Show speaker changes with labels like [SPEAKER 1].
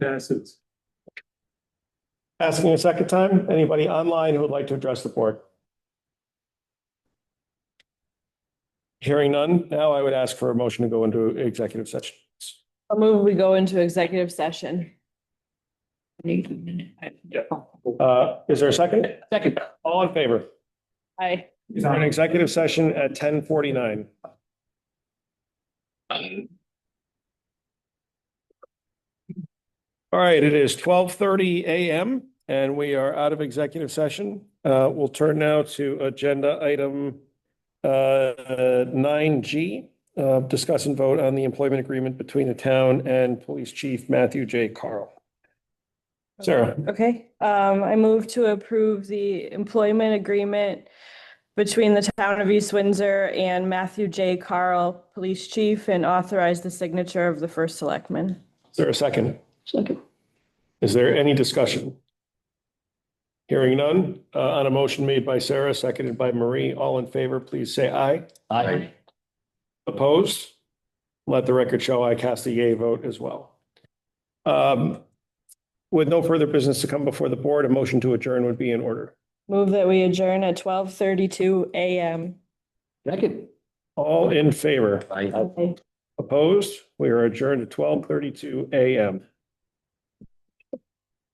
[SPEAKER 1] passes.
[SPEAKER 2] Asking a second time, anybody online who would like to address the board? Hearing none, now I would ask for a motion to go into executive session.
[SPEAKER 3] I'll move, we go into executive session.
[SPEAKER 2] Uh, is there a second? Second. All in favor?
[SPEAKER 3] Aye.
[SPEAKER 2] Is there an executive session at ten forty-nine? All right, it is twelve thirty AM and we are out of executive session. Uh, we'll turn now to agenda item uh, nine G, uh, discuss and vote on the employment agreement between the town and Police Chief Matthew J. Carl. Sarah,
[SPEAKER 3] Okay, um, I move to approve the employment agreement between the town of East Windsor and Matthew J. Carl, police chief, and authorize the signature of the first selectman.
[SPEAKER 2] is there a second?
[SPEAKER 4] Second.
[SPEAKER 2] Is there any discussion? Hearing none, uh, on a motion made by Sarah, seconded by Marie, all in favor, please say aye.
[SPEAKER 4] Aye.
[SPEAKER 2] Opposed? Let the record show I cast a yay vote as well. Um, with no further business to come before the board, a motion to adjourn would be in order.
[SPEAKER 3] Move that we adjourn at twelve thirty-two AM.
[SPEAKER 4] Second.
[SPEAKER 2] All in favor?
[SPEAKER 4] Aye.
[SPEAKER 3] Okay.
[SPEAKER 2] Opposed? We are adjourned at twelve thirty-two AM.